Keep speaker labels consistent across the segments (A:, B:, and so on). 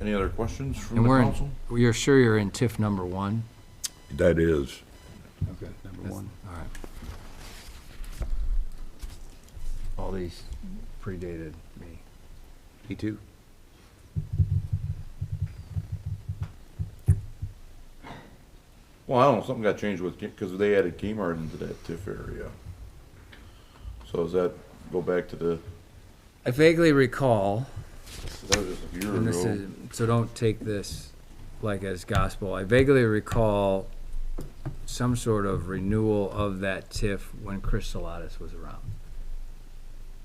A: Any other questions from
B: And
A: the
B: we're,
A: council?
B: in- you're sure you're in TIF number one?
C: That is,
D: Okay, number one.
B: All right.
D: All these predated me.
E: Me too.
A: Well, I don't know, something got changed with, because they added Kmart into that TIF area. So does that go back to the,
B: I vaguely recall,
A: that was just a year
B: and this
A: ago?
B: is, so don't take this like as gospel, I vaguely recall some sort of renewal of that TIF when Chris Salatas was around.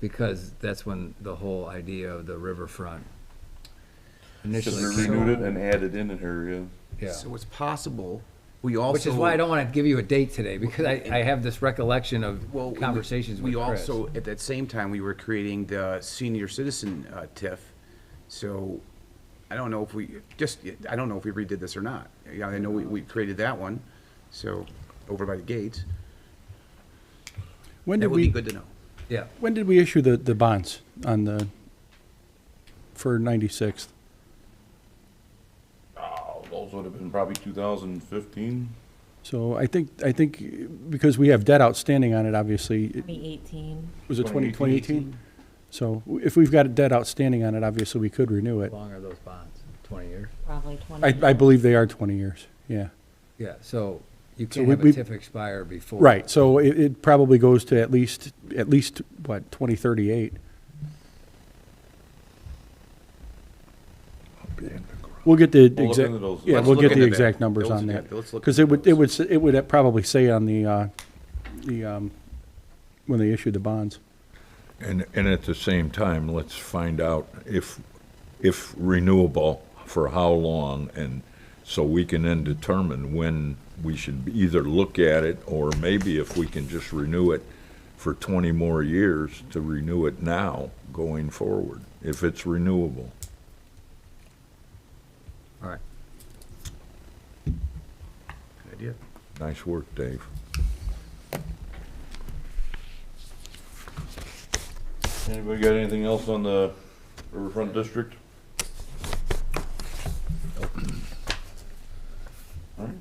B: Because that's when the whole idea of the riverfront
A: Because
B: initially
A: we
B: came
A: renewed it and added in an area.
B: Yeah.
E: So it's possible, we also.
B: Which is why I don't want to give you a date today, because I, I have this recollection of
E: Well, we-
B: conversations with
E: We
B: Chris.
E: also, at that same time, we were creating the senior citizen uh, TIF. So I don't know if we, just, I don't know if we redid this or not. Yeah, I know we, we created that one, so, over by the gates.
F: When
E: That
F: did
E: would be
F: we,
E: good to know.
B: Yeah,
F: when did we issue the, the bonds on the, for 96th?
A: Oh, those would have been probably two thousand fifteen.
F: So I think, I think, because we have debt outstanding on it, obviously, it-
G: 2018.
F: was it 20
A: 2018?
F: 2018? So if we've got debt outstanding on it, obviously, we could renew it.
B: how long are those bonds? Twenty years?
G: probably
F: I,
G: 20.
F: I believe they are 20 years, yeah.
B: Yeah, so you
F: So
B: can't
F: we-
B: have a
F: we-
B: TIF expire before.
F: Right, so it, it probably goes to at least, at least, what, 2038? We'll get
A: We'll
F: the
A: look into
F: exact,
A: those.
F: yeah,
A: Let's
F: we'll
E: look
F: get the
E: into that.
F: exact numbers
E: Let's
F: on
E: look
F: that.
E: at- let's look
F: Because
E: into
F: it would, it
E: those.
F: would, s- it would probably say on the, uh, the, um, when they issued the bonds.
C: and, and at the same time, let's find out if, if renewable, for how long, and so we can then determine when we should either look at it, or maybe if we can just renew it for twenty more years, to renew it now going forward, if it's renewable.
B: All right.
E: Good idea.
C: Nice work, Dave.
A: Anybody got anything else on the Riverfront District? Alright.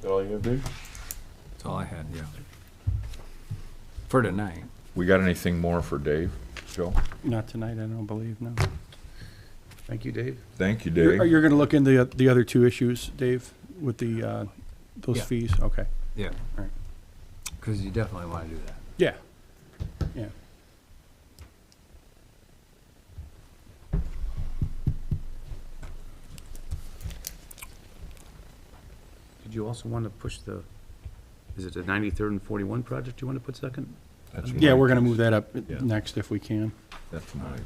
A: That all you have, Dave?
B: That's all I had, yeah. For tonight.
C: We got anything more for Dave? Joe?
F: Not tonight, I don't believe, no.
E: Thank you, Dave.
C: Thank you, Dave.
F: You're, you're gonna look into the, the other two issues, Dave, with the, uh, those
B: Yeah.
F: fees? Okay,
B: Yeah.
F: All right.
B: Because you definitely want to do that.
F: yeah, yeah.
E: Did you also want to push the, is it the 93rd and 41 project you want to put second?
C: That's
F: Yeah,
C: Mike's.
F: we're gonna move that up
C: Yeah.
F: next if we can.
C: That's Mike's.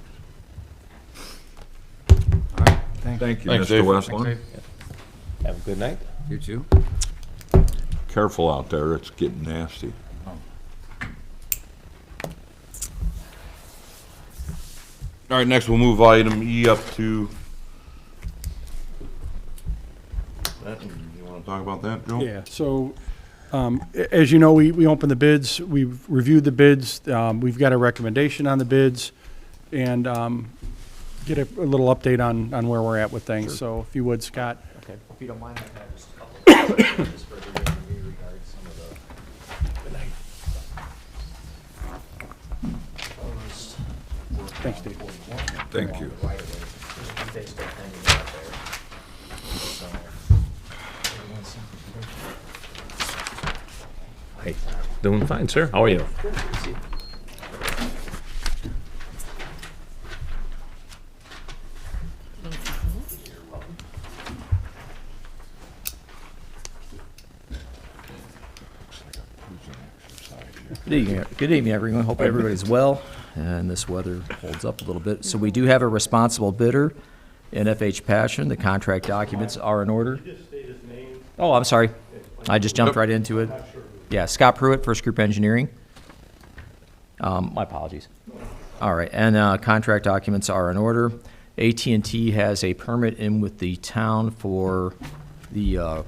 B: All right, thank
C: Thank you,
A: Thanks,
C: Mr.
A: Dave.
C: Westland.
H: Have a good night.
B: you too.
C: Careful out there, it's getting nasty.
A: All right, next we'll move item E up to. That, you wanna talk about that, Joe?
F: Yeah, so, um, a- as you know, we, we opened the bids, we've reviewed the bids, um, we've got a recommendation on the bids, and, um, get a, a little update on, on where we're at with things, so if you would, Scott.
H: If you don't mind, I have just a couple of questions for the revenue regarding some of the. Good night. Proposed work
F: Thanks,
H: on
F: Dave.
H: 41
C: Thank
H: along
C: you.
H: the right of way. They still hanging out there. So, everyone seem to
I: Hey, doing fine, sir. How are you?
H: be good.
J: Good evening, good evening, everyone. Hope everybody's well and this weather holds up a little bit. So we do have a responsible bidder, NFH Passion. The contract documents are in order. Oh, I'm sorry. I just jumped right into it. Yeah, Scott Pruitt, First Group Engineering. Um, my apologies. All right, and, uh, contract documents are in order. at and T has a permit in with the town for the, uh,